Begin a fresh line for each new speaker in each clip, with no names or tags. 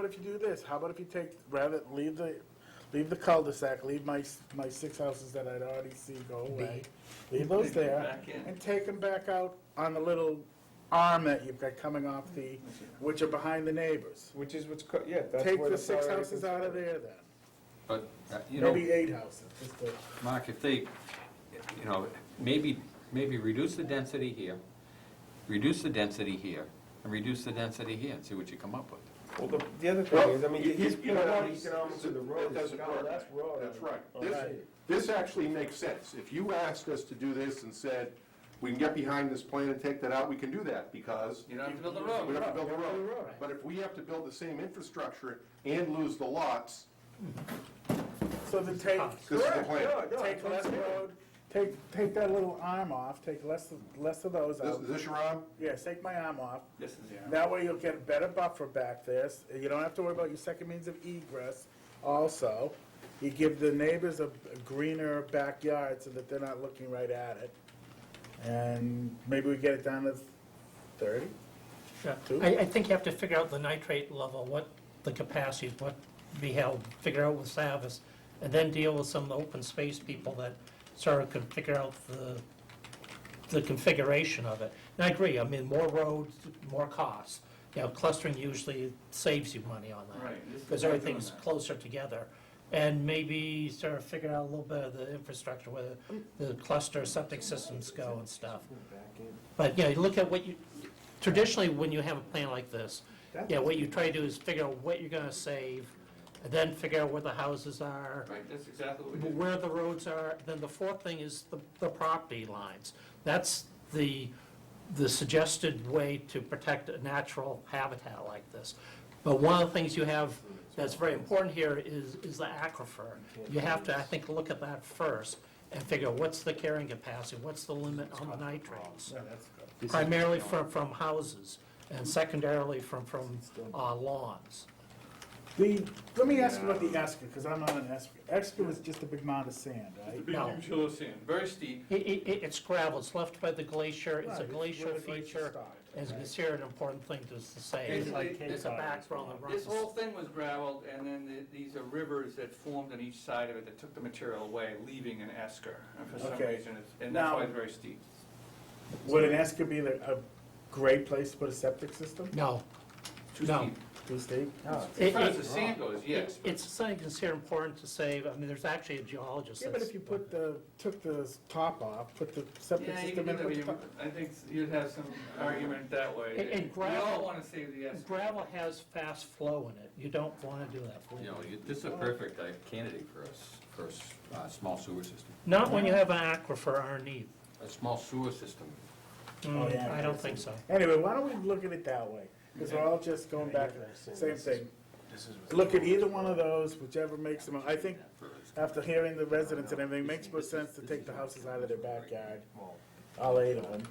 if you do this? How about if you take, rather, leave the, leave the cul-de-sac, leave my, s- my six houses that I'd already see go away. Leave those
Take 'em
there
back in.
and take them back out on the little arm that you've got coming off the, which are behind the neighbors.
Which is what's, co- yeah, that's
Take
where
the
the
six
priority
houses
is.
out of there then.
But, uh, you know,
Maybe eight houses, just to-
Mark, if they, you know, maybe, maybe reduce the density here, reduce the density here, and reduce the density here, and see what you come up with.
Well, the, the other thing is, I mean, he's putting out economics of the road,
That doesn't work.
that's road.
That's right.
Okay.
This, this actually makes sense. If you asked us to do this and said, we can get behind this plan and take that out, we can do that, because
You don't have to build the
we don't
road.
have to build the road. But if we have to build the same infrastructure and lose the lots,
So then take,
this is the
Correct,
plan.
no, no,
take
that's
less
it.
road, take, take that little arm off, take less, of- less of those
This-
out.
Is this your arm?
Yes, take my arm off.
This is,
That way you'll get a better buffer back there. S- You don't have to worry about your second means of egress also. You give the neighbors a a greener backyard so that they're not looking right at it. And maybe we get it down to thirty?
Yeah,
Two?
I, I think you have to figure out the nitrate level, what the capacity, is, what be held, figure out with Savis, and then deal with some open space people that sort of can figure out the, the configuration of it. And I agree, I mean, more roads, more costs. You know, clustering usually saves you money on that.
Right, this is
Because
why I'm doing
everything's
that.
closer together. And maybe sort of figure out a little bit of the infrastructure, where the cluster septic systems go and stuff. But, you know, you look at what you, traditionally, when you have a plan like this, yeah, what you try to do is figure out what you're gonna save, and then figure out where the houses are,
Right, that's exactly what we did.
where the roads are, then the fourth thing is the, the property lines. That's the, the suggested way to protect a natural habitat like this. But one of the things you have that's very important here is, is the aquifer. You have to, I think, look at that first and figure out what's the carrying capacity, what's the limit on the nitrates? Primarily from, from houses, and secondarily from, from uh, lawns.
The, let me ask you about the Esker, because I'm not an Esker. Esker is just a big mound of sand, right?
No.
hill of sand, very steep.
It, it, it- it's gravel, it's left by the glacier, it's a
Right,
glacial
where the glacier
feature.
stopped,
As you can
right.
see, an important thing to s- say,
It's like
it's a
Cape Cod
background that runs.
This whole thing was gravelled, and then the- these are rivers that formed on each side of it that took the material away, leaving an esker. And for some
Okay.
reason, it's- and that's
Now-
why it's very steep.
Would an Esker be the- a great place to put a septic system?
No,
Too
No.
steep.
Too steep?
As
It-
far as
it-
the sand goes, yes.
it's, it's something that's here important to say, I mean, there's actually a geologist
Yeah, but
that's.
if you put the, took the top off, put the septic
Yeah, you
system
can do
in,
that, but
put the
you-
top.
I think you'd have some argument that way.
And- and
We all
gravel-
want to save the esker.
Gravel has fast flow in it, you don't wanna do that.
You know, you- this is a perfect uh, candidate for us, for a s- uh, small sewer system.
Not when you have an aquifer underneath.
A small sewer system.
Oh,
Mm,
yeah.
I don't think so.
Anyway, why don't we look at it that way? Because we're all just going back, to the same thing. Look at either one of those, whichever makes them, I think, after hearing the residents and everything, makes more sense to take the houses out of their backyard. All eight of them.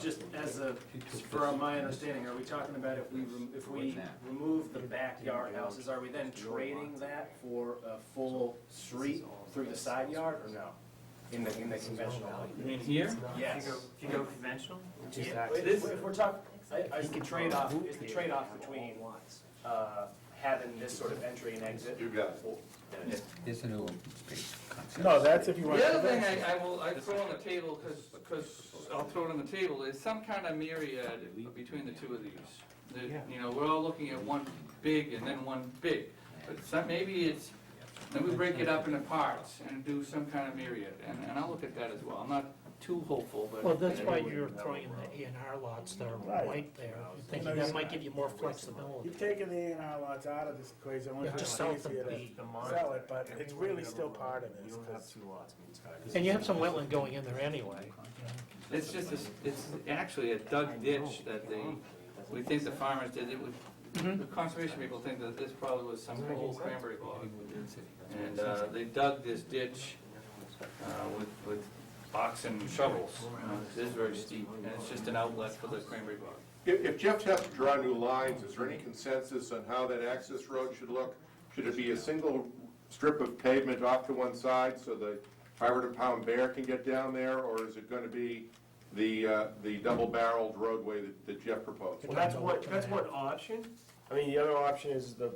Just as a, for my understanding, are we talking about if we, rem- if we remove the backyard houses, are we then trading that for a full street through the side yard or no? In the, in the conventional?
You mean here?
Yes.
If you go conventional?
Yeah, If if we're talking, is the trade-off, is the trade-off between, uh, having this sort of entry and exit?
You got it.
There's a new open space concept.
No, that's if you want.
The other thing I, I will, I throw on the table, because, I'll throw it on the table, is some kind of myriad between the two of these. That, You know, we're all looking at one big and then one big, but some, maybe it's, then we break it up into parts and do some kind of myriad, and, and I'll look at that as well. I'm not too hopeful, but.
Well, that's why you're throwing in the A and R lots that are
Right.
right there, You're
You
thinking
know,
that might give you more flexibility.
You've taken the A and R lots out of this equation, only
Yeah,
because
just
it's
sell them
easier to
deed.
sell it, but it's really still part of this.
You don't
'cause
have two lots, I mean, it's kind of-
And you have some wetland going in there anyway.
It's just, a s- it's actually a dug ditch that they, we think the farmers did, it was, the conservation people think that this probably was some old cranberry bog. And uh, they dug this ditch uh, with, with oxen shovels. It is very steep, and it's just an outlet for the cranberry bog.
If if Jeff has to draw new lines, is there any consensus on how that access road should look? Should it be a single strip of pavement off to one side so the 500-pound bear can get down there? Or is it going to be the, uh, the double-barreled roadway that- that Jeff proposed?
Well, that's what, that's one option. I mean, the other option is the